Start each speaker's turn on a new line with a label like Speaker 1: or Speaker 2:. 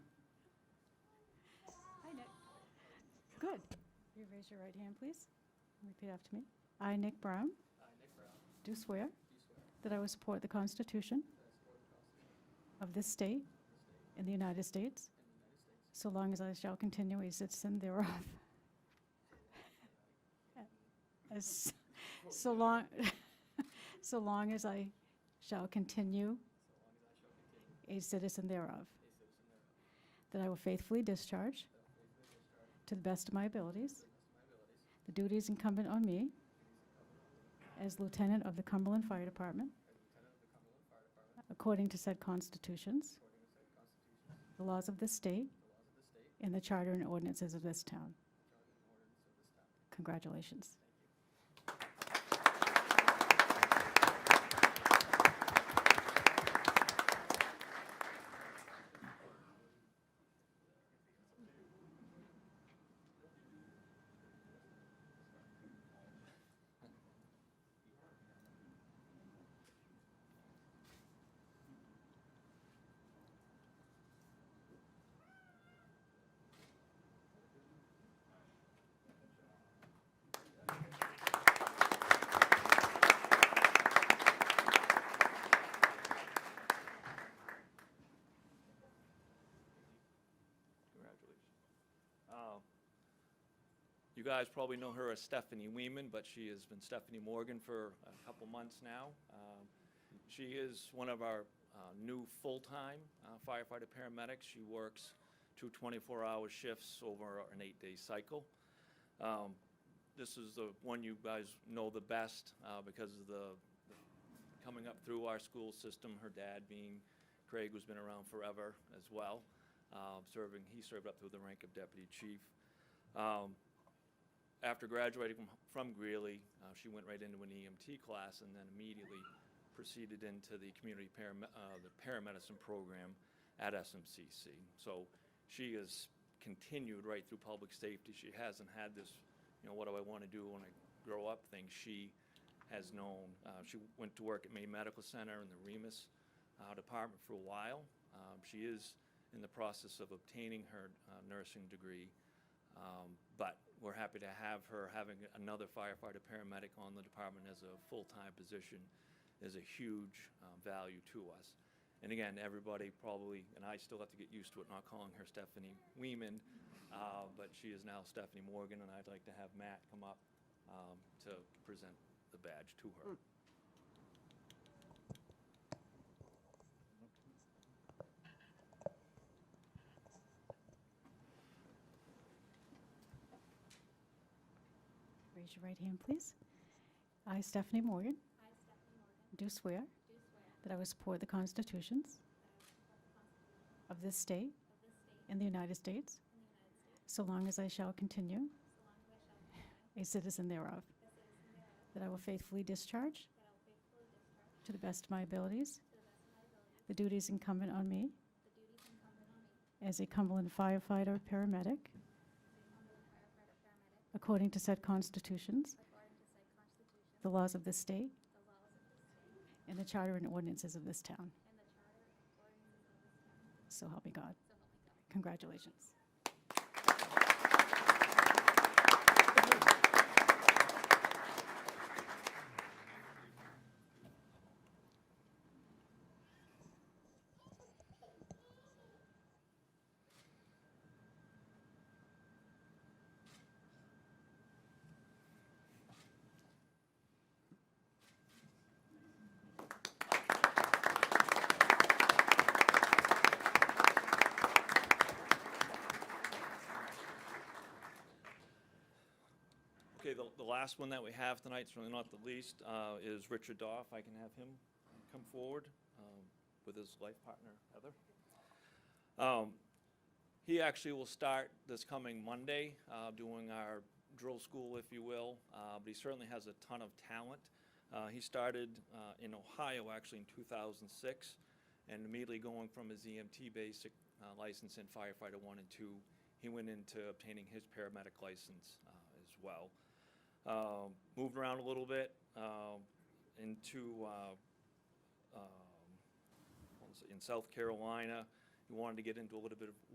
Speaker 1: Good. You raise your right hand, please. Repeat after me. I, Nick Brown,
Speaker 2: I, Nick Brown,
Speaker 1: do swear
Speaker 2: do swear
Speaker 1: that I will support the Constitution
Speaker 2: that I support the Constitution
Speaker 1: of this state
Speaker 2: of the state
Speaker 1: and the United
Speaker 2: and
Speaker 1: States,
Speaker 2: the United States,
Speaker 1: so long as I shall continue a citizen thereof. As, so long, so long as I shall continue
Speaker 2: so long as I shall continue
Speaker 1: a citizen thereof,
Speaker 2: a citizen thereof,
Speaker 1: that I will faithfully discharge,
Speaker 2: that I will faithfully discharge
Speaker 1: to the best of my abilities,
Speaker 2: to the best of my abilities
Speaker 1: the duties incumbent on me as lieutenant of the Cumberland Fire Department,
Speaker 2: as Lieutenant of the Cumberland Fire Department,
Speaker 1: according to said constitutions,
Speaker 2: according to said Constitution,
Speaker 1: the laws of this
Speaker 2: the laws of
Speaker 1: state,
Speaker 2: the state,
Speaker 1: and the charter and ordinances of this town.
Speaker 2: the charter and ordinances of this town.
Speaker 1: Congratulations.
Speaker 2: Thank you.
Speaker 3: Congratulations. Uh, You guys probably know her as Stephanie Weeman, but she has been Stephanie Morgan for a couple months now. Um, She is one of our uh, new full-time uh, firefighter paramedics. She works two 24-hour shifts over an eight-day cycle. Um, This is the one you guys know the best uh, because of the, the- coming up through our school system, her dad being Craig, who's been around forever as well um, serving, he served up to the rank of deputy chief. Um, After graduating from- from Greeley, uh, she went right into an EMT class and then immediately proceeded into the community param- uh, the paramedicine program at SMCC. So she has continued right through public safety. She hasn't had this, you know, what do I want to do when I grow up thing. She has known. Uh, She went to work at May Medical Center in the Remus uh, department for a while. Um, She is in the process of obtaining her uh, nursing degree, um, but we're happy to have her. Having another firefighter paramedic on the department as a full-time position is a huge um, value to us. And again, everybody probably, and I still have to get used to it, not calling her Stephanie Weeman, uh, but she is now Stephanie Morgan, and I'd like to have Matt come up um, to present the badge to her.
Speaker 1: Raise your right hand, please. I, Stephanie Morgan. Do swear. That I will support the constitutions. Of this state. And the United States. So long as I shall continue. A citizen thereof. That I will faithfully discharge. To the best of my abilities. The duties incumbent on me. As a Cumberland firefighter, paramedic. According to said constitutions. The laws of this state. And the charter and ordinances of this town. So help me God. Congratulations.
Speaker 3: Okay, the, the last one that we have tonight, certainly not the least, uh, is Richard Doff. I can have him come forward um, with his life partner, Heather. Um, He actually will start this coming Monday, uh, doing our drill school, if you will, uh, but he certainly has a ton of talent. Uh, He started uh, in Ohio, actually, in 2006, and immediately going from his EMT basic uh, license in firefighter one and two, he went into obtaining his paramedic license uh, as well. Um, Moved around a little bit um, into, uh, um, what was it, in South Carolina. He wanted to get into a little bit of